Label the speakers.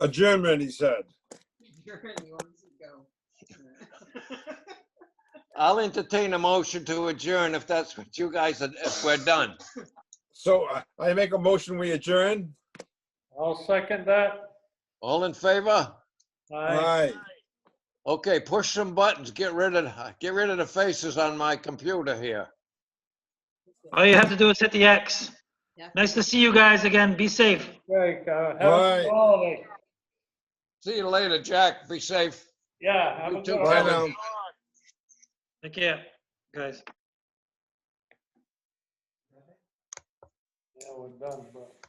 Speaker 1: Adjournment, he said.
Speaker 2: Adjourn, he wants to go.
Speaker 3: I'll entertain a motion to adjourn if that's what you guys, are- if we're done.
Speaker 1: So I- I make a motion, we adjourn?
Speaker 4: I'll second that.
Speaker 3: All in favor?
Speaker 4: Aye.
Speaker 1: Aye.
Speaker 3: Okay, push some buttons, get rid of, get rid of the faces on my computer here.
Speaker 5: All you have to do is hit the X.
Speaker 2: Yeah.
Speaker 5: Nice to see you guys again. Be safe.
Speaker 4: Okay, uh, have a
Speaker 1: Aye.
Speaker 4: good holiday.
Speaker 3: See you later, Jack. Be safe.
Speaker 4: Yeah, have
Speaker 3: You
Speaker 4: a
Speaker 3: too,
Speaker 4: good
Speaker 1: Bye
Speaker 4: holiday.
Speaker 3: Kevin.
Speaker 1: now.
Speaker 5: Take care, guys.
Speaker 4: Yeah, we're done, but.